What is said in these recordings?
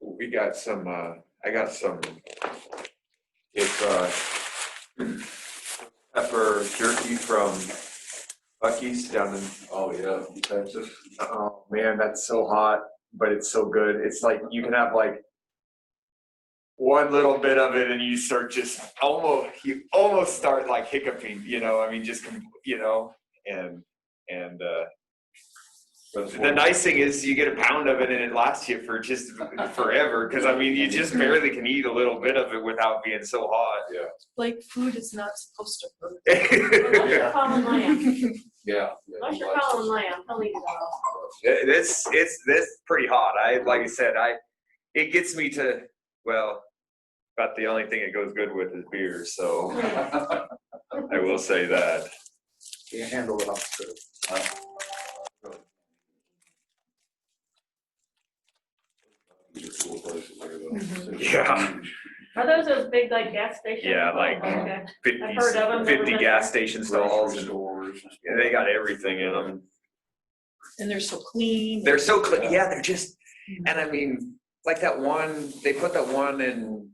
we got some, uh, I got some, it's, uh, pepper jerky from Bucky's down in Oh, yeah. Texas. Oh, man, that's so hot, but it's so good. It's like, you can have like one little bit of it and you start just almost, you almost start like hiccuping, you know, I mean, just, com- you know, and, and, uh, That's the what- nice thing is you get a pound of it and it lasts you for just forever. Cause I mean, you just barely can eat a little bit of it without being so hot. Like food is not supposed to hurt. Unless It- you're Colin Lamb, Yeah. unless you're Colin Lamb, he'll eat it all. It's, it's, it's pretty hot. I, like I said, I, it gets me to, well, about the only thing it goes good with is beer. So I will say that. Can't handle it hospital. Yeah. Are those those big like gas stations? Yeah, like- um, Okay. 50, I've heard of 'em, never 50 been gas there. station stalls Stalls and doors. yeah, they got everything in them. And they're so clean. They're so clean. Yeah, they're just, and I mean, like that one, they put that one in,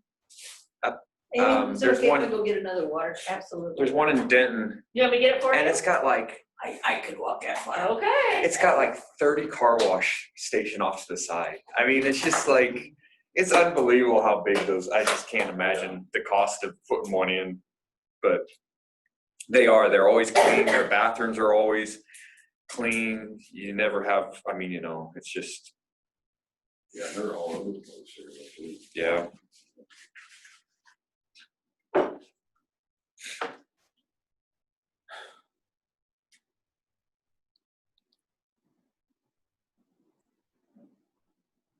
um, And so there's if you one- want to go get another water, absolutely. there's one in Denton, You want me to get it for you? and it's got like, I, I could walk that far. Okay. it's got like thirty car wash station off to the side. I mean, it's just like, it's unbelievable how big those, I just can't imagine the cost of putting one in, but they are, they're always clean, their bathrooms are always clean, you never have, I mean, you know, it's just, Yeah, they're all over the place here. actually. yeah.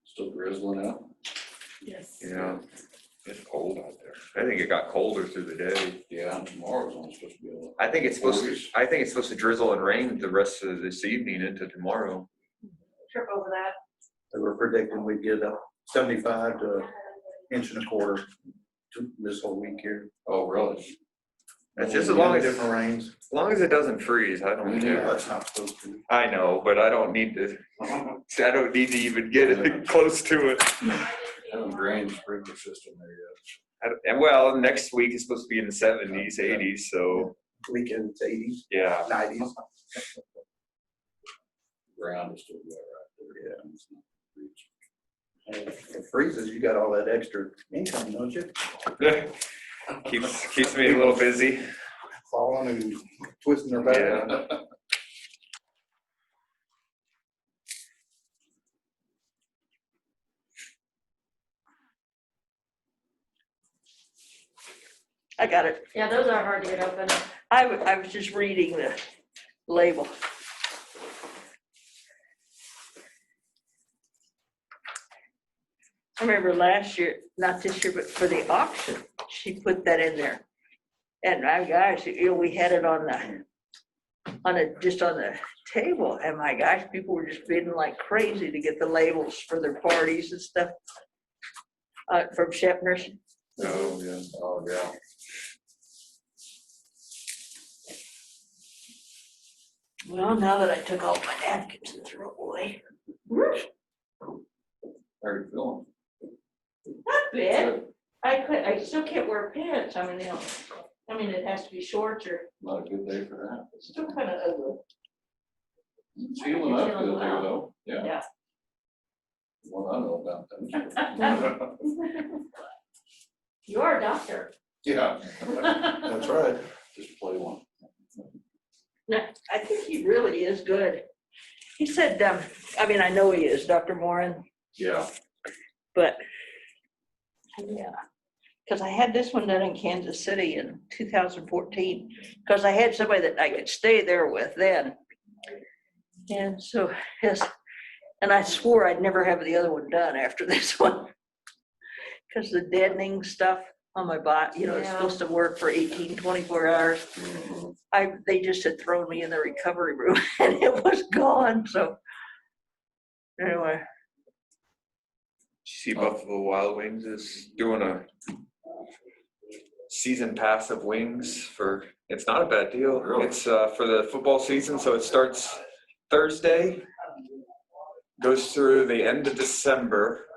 Still grizzling out. Yes. Yeah, it's cold out there. I think it got colder through the day. Yeah, and tomorrow's only supposed to be a. I think it's supposed to, I think it's supposed to drizzle and rain the rest of this evening into tomorrow. Trip over that. They were predicting we'd get a seventy-five to inch and a quarter to this whole week here. Oh, really? That's just as long as, as Different rains. long as it doesn't freeze, I don't care. That's not supposed to. I know, but I don't need to, I don't need to even get it close to it. Haven't drained the sprinkler system there yet. I don't- And well, next week is supposed to be in the seventies, eighties, so, Weekends, eighties, yeah. nineties. Ground is still wet right there. Yeah. If it freezes, you got all that extra income, don't you? Keeps, keeps me a little busy. Falling and twisting their back. Yeah. I got it. Yeah, those are hard to get open. I, wa- I was just reading the label. I remember last year, not this year, but for the auction, she put that in there. And my gosh, you know, we had it on the, on a, just on the table, and my gosh, people were just bidding like crazy to get the labels for their parties and stuff. Uh, from Shepner's. Oh, yeah. Oh, yeah. Well, now that I took all my napkins and threw away. How you feeling? Not bad. I could, I still can't wear pants. I mean, they don't, I mean, it has to be shorts or Not a good day for that. it's still kind of ugly. Feeling up good there though, yeah. Yeah. Well, I know about that. You are a doctor. Yeah, That's right. just play one. I think he really is good. He said, um, I mean, I know he is, Dr. Moran, Yeah. but yeah, because I had this one done in Kansas City in 2014, because I had somebody that I could stay there with then. And so, yes, and I swore I'd never have the other one done after this one. Because the deadening stuff on my body, you know, it's Yeah. supposed to work for 18, 24 hours. Mm-hmm. I, they just had thrown me in the recovery room and it was gone, so. Anyway, See Buffalo Wild Wings is doing a season pass of wings for, it's not a bad deal. Really? It's uh, for the football season, so it starts Thursday, goes through the end of December.